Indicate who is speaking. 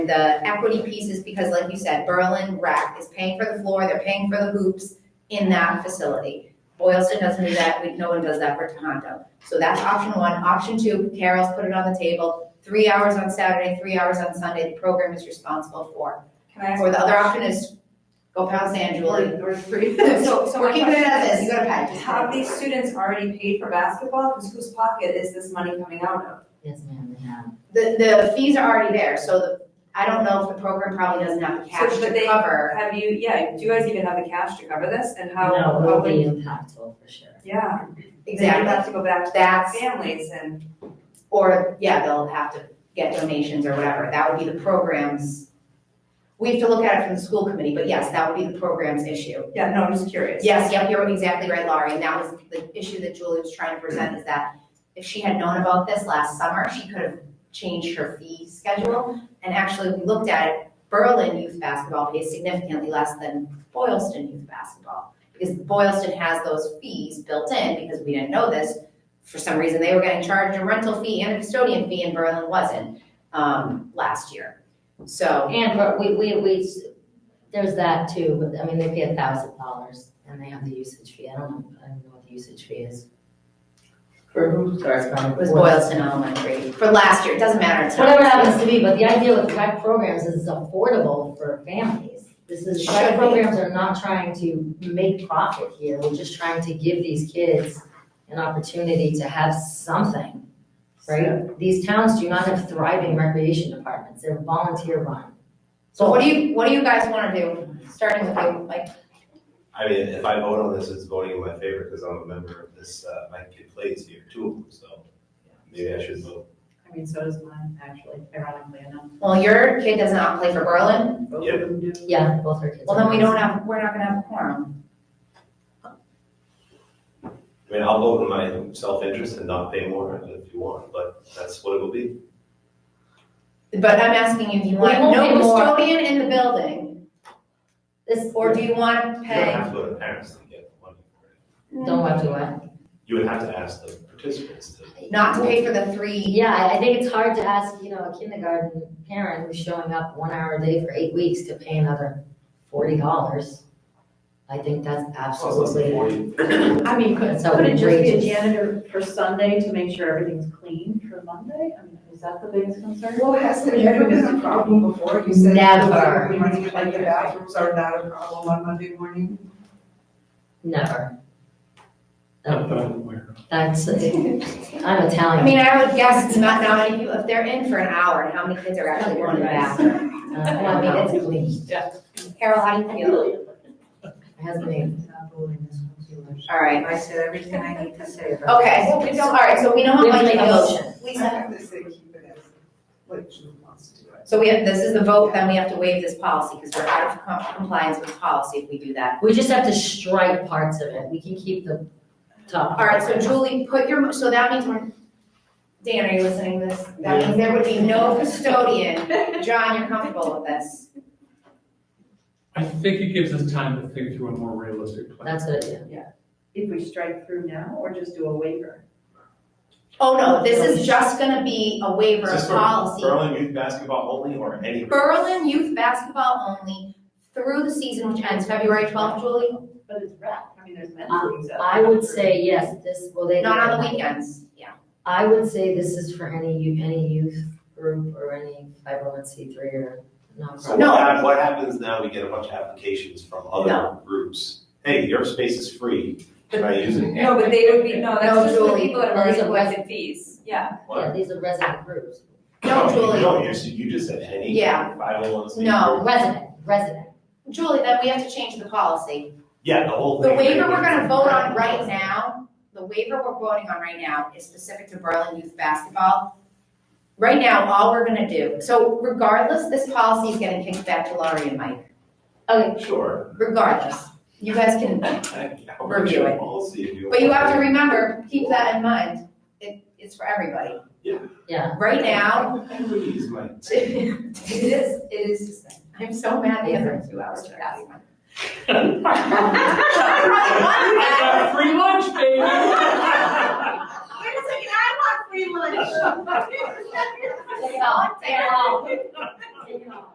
Speaker 1: the equity piece is because, like you said, Berlin Rec is paying for the floor, they're paying for the hoops in that facility. Boylston doesn't do that, we, no one does that for Tohoto. So that's option one. Option two, Carol's put it on the table, three hours on Saturday, three hours on Sunday, the program is responsible for.
Speaker 2: Can I ask?
Speaker 1: Or the other option is go pound sand, Julie.
Speaker 2: Or, or free. So, so
Speaker 1: We're
Speaker 2: my
Speaker 1: keeping it
Speaker 2: question
Speaker 1: at this,
Speaker 2: is,
Speaker 1: you gotta pay.
Speaker 2: Have these students already paid for basketball? Because whose pocket is this money coming out of?
Speaker 3: Yes, ma'am, they have.
Speaker 1: The, the fees are already there, so the, I don't know if the program probably doesn't have the cash
Speaker 2: but
Speaker 1: to
Speaker 2: they-
Speaker 1: cover.
Speaker 2: Have you, yeah, do you guys even have the cash to cover this and how?
Speaker 3: No, it
Speaker 2: how
Speaker 3: will be
Speaker 2: would-
Speaker 3: impactful for sure.
Speaker 2: Yeah. You
Speaker 1: Exactly,
Speaker 2: have to go back to
Speaker 1: that's
Speaker 2: families and,
Speaker 1: Or, yeah, they'll have to get donations or whatever, that would be the program's. We have to look at it from the school committee, but yes, that would be the program's issue.
Speaker 2: yeah, no, I'm just curious.
Speaker 1: Yes, yep, you're exactly right, Laurie, and that was the issue that Julie was trying to present, is that if she had known about this last summer, she could have changed her fee schedule. And actually, we looked at it, Berlin youth basketball pays significantly less than Boylston youth basketball. Because Boylston has those fees built in, because we didn't know this, for some reason, they were getting charged a rental fee and a custodian fee, and Berlin wasn't, um, last year. So,
Speaker 3: And, but we, we, we, s- there's that too, but I mean, they pay a thousand dollars and they have the usage fee. I don't know, I don't know what the usage fee is. For who? Sorry, it's probably.
Speaker 1: it was Boylston Elementary, for last year, it doesn't matter, it's not.
Speaker 3: Whatever it happens to be, but the idea with tech programs is it's affordable for families. This is,
Speaker 1: Should
Speaker 3: tech
Speaker 1: be.
Speaker 3: programs are not trying to make profit here, we're just trying to give these kids an opportunity to have something, right? These towns do not have thriving recreation departments, they're volunteer run.
Speaker 1: So what do you, what do you guys wanna do, starting with you, like,
Speaker 4: I mean, if I vote on this, it's voting in my favor because I'm a member of this, uh, my kid plays here, two of them, so maybe I should vote.
Speaker 5: I mean, so does mine, actually, ironically enough.
Speaker 1: well, your kid does not play for Berlin,
Speaker 5: Both
Speaker 4: Yep.
Speaker 5: of them do.
Speaker 3: Yeah, both her kids.
Speaker 1: well, then we
Speaker 3: are-
Speaker 1: don't have, we're not gonna have a quorum.
Speaker 4: I mean, I'll vote in my self-interest and not pay more if you want, but that's what it will be.
Speaker 1: But I'm asking you, do you want
Speaker 3: We won't
Speaker 1: no
Speaker 3: pay more.
Speaker 1: custodian in the building,
Speaker 3: This,
Speaker 1: or do you wanna
Speaker 4: You don't
Speaker 1: pay?
Speaker 4: have to go to parents to get money for it.
Speaker 3: don't have to what?
Speaker 4: You would have to ask the participants to.
Speaker 1: Not to pay for the three,
Speaker 3: Yeah, I- I think it's hard to ask, you know, a kindergarten parent who's showing up one hour a day for eight weeks to pay another forty dollars. I think that's absolutely.
Speaker 5: I mean, could,
Speaker 3: That's
Speaker 5: could it just be a
Speaker 3: outrageous.
Speaker 5: janitor for Sunday to make sure everything's clean for Monday? I mean, is that the biggest concern?
Speaker 6: Well, has there ever been a problem before? You said
Speaker 3: Never.
Speaker 6: Monday morning, like the bathrooms are not a problem on Monday morning?
Speaker 3: Never. No, That's, I'm Italian.
Speaker 1: I mean, I would guess it's not, how many people, if they're in for an hour, and how many kids are actually going to the bathroom?
Speaker 3: Uh, I mean, it's clean.
Speaker 1: Carol, how do you feel?
Speaker 3: My husband ain't-
Speaker 1: All right,
Speaker 6: I said everything I need to say
Speaker 1: okay, so, all right, so we know how
Speaker 3: We have
Speaker 1: much
Speaker 3: to make a
Speaker 1: goes.
Speaker 3: motion.
Speaker 6: I
Speaker 1: Lisa,
Speaker 6: have to say, keep it as what Julie wants to do.
Speaker 1: so we have, this is the vote, then we have to waive this policy, because we're out of com- compliance with policy if we do that.
Speaker 3: We just have to strike parts of it. We can keep the top.
Speaker 1: All right, so Julie, put your, mo- so that means we're, Dan, are you listening to this? That means there would be no custodian. John, you're comfortable with this?
Speaker 7: I think it gives us time to think through a more realistic plan.
Speaker 3: That's what it is.
Speaker 5: If we strike through now or just do a waiver?
Speaker 1: Oh, no, this is just gonna be a waiver
Speaker 4: Is this
Speaker 1: of
Speaker 4: for
Speaker 1: policy.
Speaker 4: Berlin youth basketball only or any?
Speaker 1: Berlin youth basketball only through the season, which ends February twelfth, Julie,
Speaker 5: But it's rec, I mean, there's men's
Speaker 3: Um,
Speaker 5: leagues out
Speaker 3: I
Speaker 5: there.
Speaker 3: would say yes, this, well, they.
Speaker 1: not on the weekends, yeah.
Speaker 3: I would say this is for any you, any youth group or any five oh one C three or
Speaker 4: So
Speaker 3: nonprofit.
Speaker 1: No.
Speaker 4: what hap- what happens now, we get a bunch of applications from other groups. Hey, your space is free, can I use it?
Speaker 2: No, but they would be, no,
Speaker 1: No,
Speaker 2: that's just the
Speaker 1: Julie.
Speaker 2: people that have
Speaker 3: Well, it's
Speaker 2: already
Speaker 3: a
Speaker 2: collected fees, yeah.
Speaker 3: Yeah,
Speaker 4: What?
Speaker 3: these are resident groups.
Speaker 1: No, Julie.
Speaker 4: No, you, you just said any.
Speaker 1: Yeah.
Speaker 4: Five oh one C.
Speaker 1: No.
Speaker 3: Resident, resident.
Speaker 1: Julie, then we have to change the policy.
Speaker 4: Yeah, the whole
Speaker 1: The
Speaker 4: thing.
Speaker 1: waiver we're gonna vote on right now, the waiver we're voting on right now is specific to Berlin youth basketball. Right now, all we're gonna do, so regardless, this policy is getting kicked back to Laurie and Mike,
Speaker 3: Okay,
Speaker 4: Sure.
Speaker 1: regardless. You guys can,
Speaker 4: I'll
Speaker 1: Review it.
Speaker 4: Policy if you.
Speaker 1: but you have to
Speaker 4: want.
Speaker 1: remember, keep that in mind, it, it's for everybody.
Speaker 3: yeah.
Speaker 1: Right now,
Speaker 4: I would use my.
Speaker 1: It is, it is suspended. I'm so mad the other two hours are passing. Wait
Speaker 7: got free lunch,
Speaker 4: baby.
Speaker 1: a second, I want free lunch. They all, they all.
Speaker 5: Take it off.